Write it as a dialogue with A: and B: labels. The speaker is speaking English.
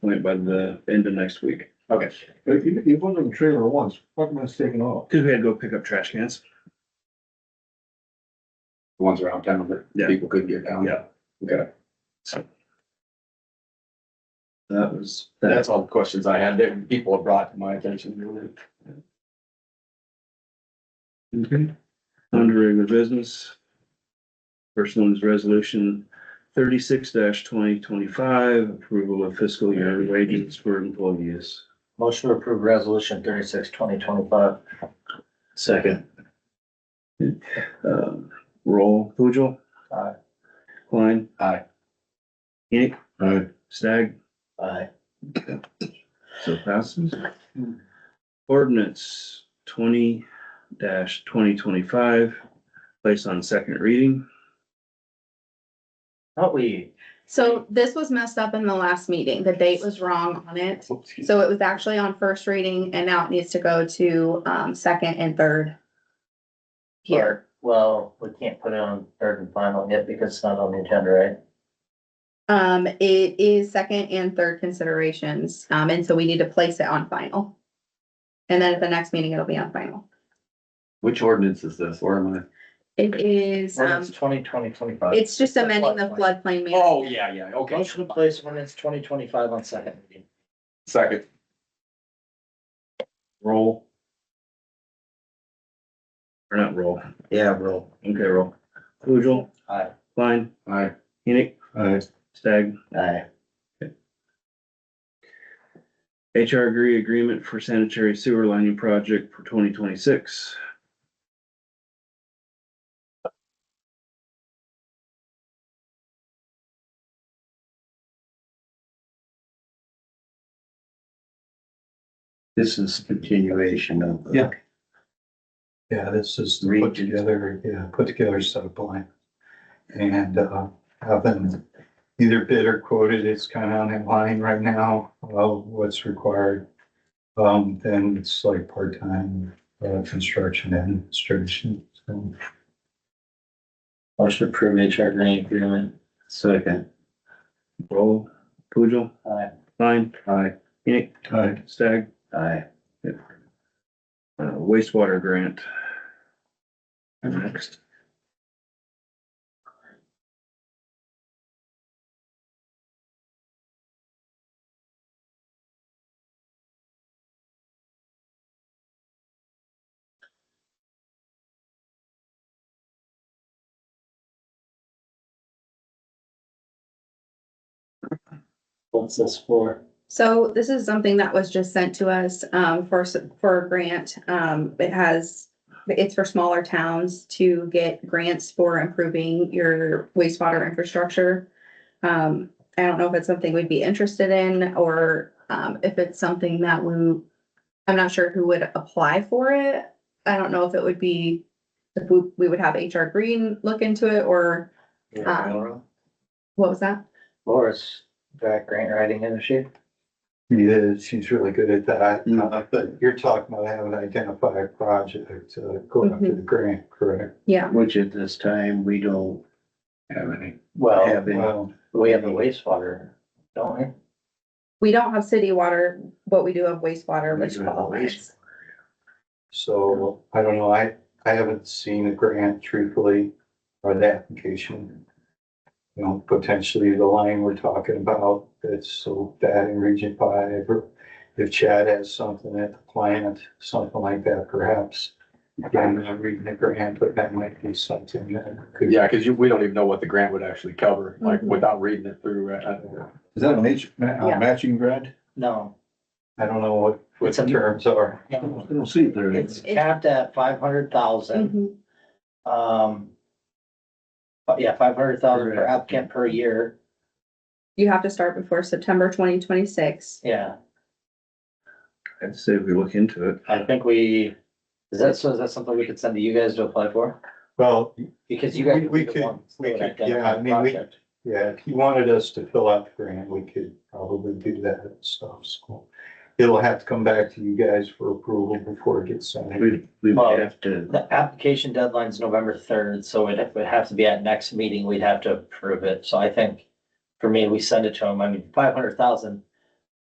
A: point by the end of next week.
B: Okay.
C: But you, you put it in the trailer once, fuck am I taking off?
A: Cause we had to go pick up trash cans.
B: The ones around town
A: Yeah.
B: that people couldn't get down.
A: Yeah.
B: Okay.
A: That was. that.
B: That's all the questions I had. There, people have brought to my attention. really.
A: Okay. Under regular business. First one is resolution thirty-six twenty twenty-five, approval of fiscal year wages for employees.
D: Motion to approve resolution thirty-six, twenty twenty-five.
A: Second. Um, roll, Poojil.
D: Aye.
A: Klein.
B: Aye.
A: Yank.
C: Aye.
A: Stag.
D: Aye.
A: So passes. Ordinance twenty twenty twenty-five, placed on second reading.
D: Thought we,
E: So this was messed up in the last meeting. The date was wrong on it. So it was actually on first reading and now it needs to go to um second and third. Here,
D: well, we can't put it on third and final yet because it's not on the agenda, right?
E: um, it is second and third considerations, um, and so we need to place it on final. And then at the next meeting, it'll be on final.
B: Which ordinance is this? Where am I?
E: It is, um,
D: Ordinance twenty, twenty twenty-five.
E: it's just amending the floodplain. management.
B: Oh, yeah, yeah, okay.
D: Motion to place ordinance twenty twenty-five on second reading.
B: Second.
A: Roll. Or not roll.
D: Yeah, roll.
A: Okay, roll. Poojil,
D: Aye.
A: Klein,
B: Aye.
A: Enoch,
C: Aye.
A: Stag.
D: Aye.
A: HR agree agreement for sanitary sewer lining project for twenty twenty-six.
F: This is continuation of. the
C: Yeah. Yeah, this is to put together, yeah, put together a set of plan. And, uh, have them either bid or quoted, it's kind of on line right now, of what's required. Um, then it's like part-time, uh, construction administration, so.
D: Motion to approve HR grant agreement.
F: Second,
A: Roll. Poojil,
D: Aye.
A: Klein,
F: aye,
A: Enoch,
C: Aye.
A: Stag.
F: aye.
A: Uh, wastewater grant. Next.
D: What's this for?
E: So this is something that was just sent to us um, for, s- for a grant. Um, It has, it's for smaller towns to get grants for improving your wastewater infrastructure. Um, I don't know if it's something we'd be interested in or um, if it's something that we, I'm not sure who would apply for it. I don't know if it would be, if we, we would have HR Green look into it or um,
D: Laura.
E: what was that?
D: Laura's back grant writing industry.
C: Yeah, she's really good at that, Uh, but you're talking about having to identify a project uh, to go after the grant, correct?
E: Yeah.
F: Which at this time, we don't
B: Have any?
D: Well,
F: have any.
C: Well,
D: we have the wastewater, don't we?
E: We don't have city water, but we do have wastewater,
F: We
E: which
F: do have
E: qualifies.
C: so I don't know, I, I haven't seen a grant truthfully or the application. You know, potentially the line we're talking about, that's so bad in Region Five, or if Chad has something at the plant, something like that perhaps. Again, I'm reading the grant, but that might be something that could.
B: Yeah, because you, we don't even know what the grant would actually cover, like
E: Mhm.
B: without reading it through. uh, uh,
C: Is that a match,
E: Yeah.
C: matching grant?
D: No,
C: I don't know what, what
D: It's a-
C: the terms are.
D: no.
F: We'll see if there
D: It's
F: is.
D: capped at five hundred thousand,
E: Mhm.
D: um. But yeah, five hundred thousand per
F: Correct.
D: applicant per year,
E: You have to start before September twenty twenty-six.
D: yeah,
A: I'd say we look into it.
D: I think we, is that, so is that something we could send to you guys to apply for?
C: Well,
D: Because you guys.
C: We-
D: would
C: we
D: be the
C: could-
D: ones
C: we
D: that
C: could,
D: identify
C: yeah, I
D: the
C: mean, we-
D: project.
C: yeah, if you wanted us to fill out the grant, we could probably do that and stuff, so. It'll have to come back to you guys for approval before it gets signed.
F: We, we
D: Well-
F: would have to,
D: The application deadline's November third, so it would have to be at next meeting, we'd have to approve it, so I think. For me, we send it to them, I mean, five hundred thousand,